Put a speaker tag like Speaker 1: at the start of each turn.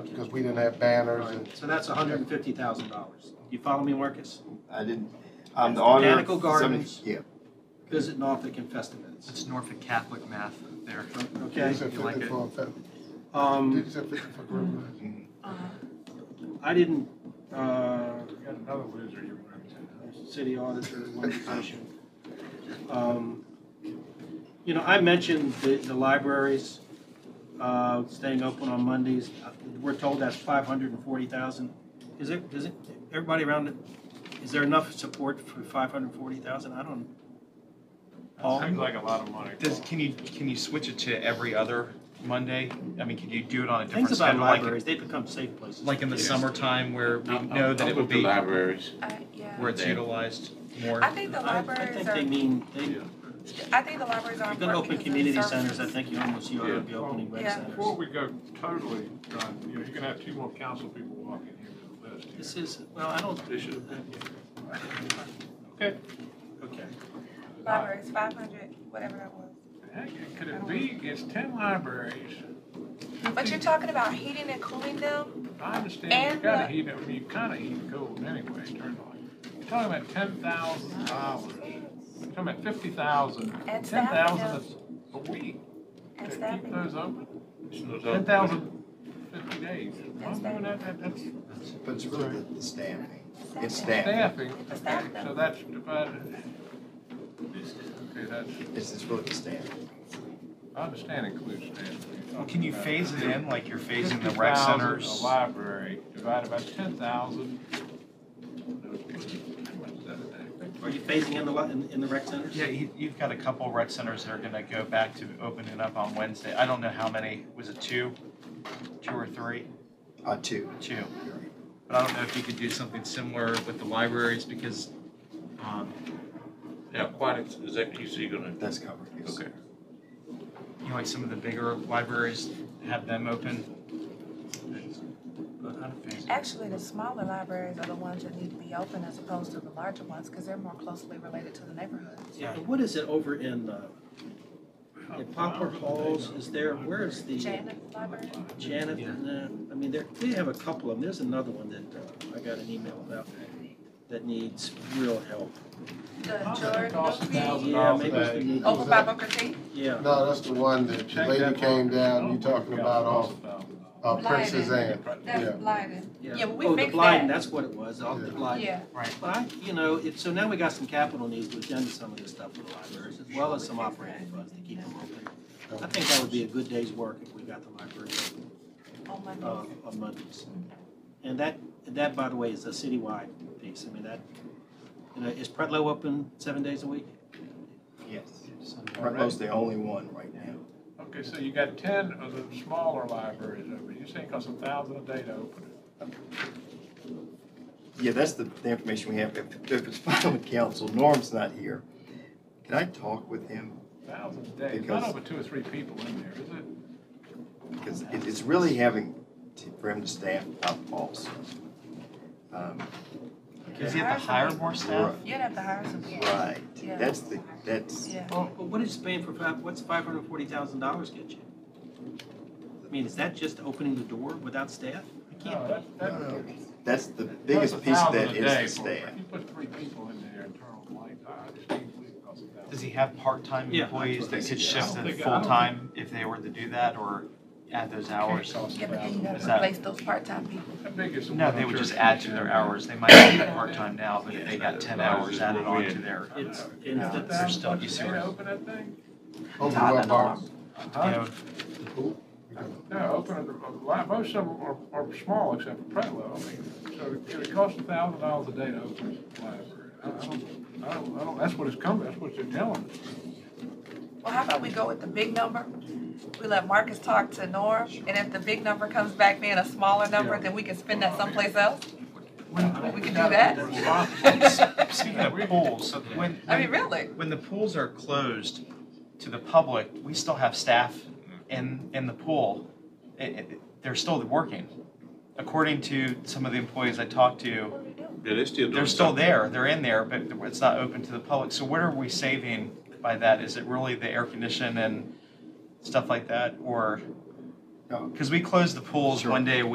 Speaker 1: because we didn't have banners and
Speaker 2: So that's hundred and fifty thousand dollars. You follow me, Marcus?
Speaker 3: I didn't, I'm the
Speaker 2: That's
Speaker 3: auditor.
Speaker 2: Botanical
Speaker 3: for some-
Speaker 2: Gardens.
Speaker 3: Yeah,
Speaker 2: Visit Norfolk and Festivus,
Speaker 4: It's Norfolk Catholic math there.
Speaker 1: you
Speaker 2: okay?
Speaker 1: said
Speaker 4: You like
Speaker 1: fifty
Speaker 4: it?
Speaker 1: for, a fe-
Speaker 2: Um,
Speaker 1: did you say fifty for group?
Speaker 2: I didn't, uh,
Speaker 5: You got another loser you wanted to.
Speaker 2: city auditor organization. Um, You know, I mentioned the, the libraries, uh, staying open on Mondays. Uh, We're told that's five hundred and forty thousand. Is it, does it, everybody around it, is there enough support for five hundred and forty thousand? I don't. Paul? Oh.
Speaker 5: That seems like a lot of money.
Speaker 4: Does, can you, can you switch it to every other Monday? I mean, could you do it on a different
Speaker 2: Things about
Speaker 4: schedule? like-
Speaker 2: libraries, they become safe places.
Speaker 4: Like in the
Speaker 6: Yes.
Speaker 4: summertime where we
Speaker 6: I'll-
Speaker 4: know
Speaker 6: I'll-
Speaker 4: that
Speaker 6: I'll
Speaker 4: uh, it would
Speaker 6: put the
Speaker 4: be,
Speaker 6: Libraries.
Speaker 7: Uh, yeah.
Speaker 4: where it's
Speaker 6: there.
Speaker 4: utilized more?
Speaker 7: I think the
Speaker 2: I, I
Speaker 7: libraries
Speaker 2: think they
Speaker 7: are,
Speaker 2: mean, they,
Speaker 6: Yeah.
Speaker 2: if
Speaker 7: I think the libraries are
Speaker 2: you're gonna
Speaker 7: important
Speaker 2: open
Speaker 7: because of the
Speaker 2: community centers, I
Speaker 7: services.
Speaker 2: think you almost, you ought
Speaker 6: Yeah.
Speaker 2: to be opening rec
Speaker 7: Yeah.
Speaker 5: Before
Speaker 2: centers.
Speaker 5: we go totally, John, you know, you're gonna have two more council people walking here to the list here.
Speaker 2: This is, well, I don't.
Speaker 6: They should have
Speaker 5: Okay.
Speaker 2: Okay.
Speaker 7: Libraries, five hundred, whatever that was.
Speaker 5: Heck, it could it be, it's ten libraries.
Speaker 7: But you're talking about heating and cooling them?
Speaker 5: I understand, you
Speaker 7: And uh,
Speaker 5: gotta
Speaker 7: the-
Speaker 5: heat it, I mean, you kinda heat it cold anyway, turn on. You're talking about ten thousand dollars, you're talking about fifty thousand.
Speaker 7: And
Speaker 5: Ten thousand
Speaker 7: staffing
Speaker 5: is a week, to
Speaker 7: And
Speaker 5: keep
Speaker 7: staffing.
Speaker 5: those open,
Speaker 6: It's
Speaker 5: ten
Speaker 6: not-
Speaker 5: thousand fifty days. Why
Speaker 7: And
Speaker 5: would that- that- that's
Speaker 3: but it's really the- the staffing. It's staffing.
Speaker 5: staffing,
Speaker 7: It's
Speaker 5: okay,
Speaker 7: staffing.
Speaker 5: so that's divided. Okay, that's,
Speaker 3: It's, it's really the staffing.
Speaker 5: I understand includes staffing.
Speaker 4: Well, Can you phase it in, like you're phasing the rec
Speaker 5: 50,000
Speaker 4: centers?
Speaker 5: A library divided by ten thousand. Well,
Speaker 2: Are you phasing in the, li- in, in the rec centers?
Speaker 4: Yeah, you- you've got a couple rec centers that are gonna go back to opening up on Wednesday. I don't know how many, was it two? Two or three?
Speaker 3: Uh, two.
Speaker 4: Two. But I don't know if you could do something similar with the libraries because, um,
Speaker 6: Now, aquatics, is that, you see, gonna,
Speaker 3: That's covered, yes.
Speaker 6: okay.
Speaker 4: you know, like some of the bigger libraries, have them open. But I don't think-
Speaker 7: Actually, the smaller libraries are the ones that need to be open as opposed to the larger ones, because they're more closely related to the neighborhood.
Speaker 2: Yeah, and what is it over in, uh,
Speaker 5: Oh,
Speaker 2: in Poplar Halls, is there, where is the
Speaker 7: Janet Library?
Speaker 2: Janet,
Speaker 4: Yeah.
Speaker 2: and, uh, I mean, there, they have a couple of them, there's another one that, uh, I got an email about that needs real help.
Speaker 7: The
Speaker 5: It costs a
Speaker 7: Jordan,
Speaker 5: thousand
Speaker 2: Yeah,
Speaker 5: dollars a
Speaker 2: maybe
Speaker 5: day.
Speaker 2: we need,
Speaker 7: over by Booker T.
Speaker 2: yeah,
Speaker 1: No, that's the one that the
Speaker 5: Check
Speaker 1: lady
Speaker 5: that Oh,
Speaker 1: came
Speaker 5: box.
Speaker 1: down, you talking about off, uh, Princess Anne. Yeah.
Speaker 7: Blyden.
Speaker 2: yeah.
Speaker 7: Yeah, but we
Speaker 2: Oh, the
Speaker 7: fixed
Speaker 2: blind,
Speaker 7: that.
Speaker 2: that's what it was, off the
Speaker 1: Yeah.
Speaker 2: blind.
Speaker 7: Yeah.
Speaker 2: But I, you know, it, so now we got some capital needs to attend to some of this stuff for the libraries, as well as some operating funds to keep them open. I think that would be a good day's work if we got the library
Speaker 7: Oh, my
Speaker 2: uh,
Speaker 7: God.
Speaker 2: on Mondays. And that, and that, by the way, is a citywide piece. I mean, that, you know, is Pretlow open seven days a week?
Speaker 3: Yes.
Speaker 2: Sunday.
Speaker 3: Prevo's the only one right now.
Speaker 5: Okay, so you got ten of the smaller libraries open, you're saying it costs a thousand a day to open it?
Speaker 3: Yeah, that's the, the information we have. If, if it's fine with council, Norm's not here. Can I talk with him?
Speaker 5: Thousand a day, it's not
Speaker 3: Because-
Speaker 5: over two or three people in there, is it?
Speaker 3: Because it, it's really having, to- for him to staff up also. Um,
Speaker 4: Does he have to hire more staff?
Speaker 7: You'd have to hire some people.
Speaker 3: Right,
Speaker 7: Yeah.
Speaker 3: that's the, that's.
Speaker 7: Yeah.
Speaker 2: Well, but what is paying for five, what's five hundred and forty thousand dollars get you? I mean, is that just opening the door without staff? It
Speaker 5: No,
Speaker 2: can't be.
Speaker 5: that- that-
Speaker 3: No. That's the biggest
Speaker 5: That's a
Speaker 3: piece of
Speaker 5: thousand
Speaker 3: that
Speaker 5: a day
Speaker 3: is
Speaker 5: for-
Speaker 3: the staff.
Speaker 5: If you put three people in there and turn on the light, I just can't believe it costs a thousand.
Speaker 4: Does he have part-time
Speaker 2: Yeah.
Speaker 4: employees that could
Speaker 5: I don't
Speaker 4: shift to
Speaker 5: think- I don't-
Speaker 4: full-time if they were to do that or add those hours?
Speaker 7: Yeah, but then you
Speaker 4: Is
Speaker 7: gotta
Speaker 4: that-
Speaker 7: replace those part-time people.
Speaker 5: How big is the
Speaker 4: No,
Speaker 5: one
Speaker 4: they
Speaker 5: on
Speaker 4: would just
Speaker 5: Church
Speaker 4: add to
Speaker 5: Street?
Speaker 4: their hours. They might be part-time now, but if they got ten hours added on to their,
Speaker 2: It's,
Speaker 5: Is it
Speaker 2: it's,
Speaker 5: a
Speaker 4: they're
Speaker 2: it's-
Speaker 5: thousand
Speaker 4: still-
Speaker 5: bucks
Speaker 4: you
Speaker 5: a
Speaker 4: see
Speaker 5: day to
Speaker 4: where-
Speaker 5: Open that thing?
Speaker 1: Open
Speaker 7: Todd
Speaker 1: what
Speaker 7: and
Speaker 1: box?
Speaker 4: you know,
Speaker 5: No, open it, a lot- most of them are, are small except for Prelo, I mean, so it- it costs a thousand dollars a day to open a library. I I don't, I don't, I don't, that's what it's coming, that's what they're telling us.
Speaker 7: Well, how about we go with the big number? We let Marcus talk to Norm, and if the big number comes back being a smaller number, then we can spend that someplace else? We can do that?
Speaker 4: Speaking of pools, so when,
Speaker 7: I mean,
Speaker 4: when,
Speaker 7: really?
Speaker 4: when the pools are closed to the public, we still have staff in, in the pool. It- it- they're still working. According to some of the employees I talked to,
Speaker 6: Yeah, they're still doing.
Speaker 4: they're still
Speaker 6: something.
Speaker 4: there, they're in there, but it's not open to the public. So what are we saving by that? Is it really the air condition and stuff like that, or?
Speaker 3: No.
Speaker 4: Because we close the pools
Speaker 3: Sure.
Speaker 4: one day a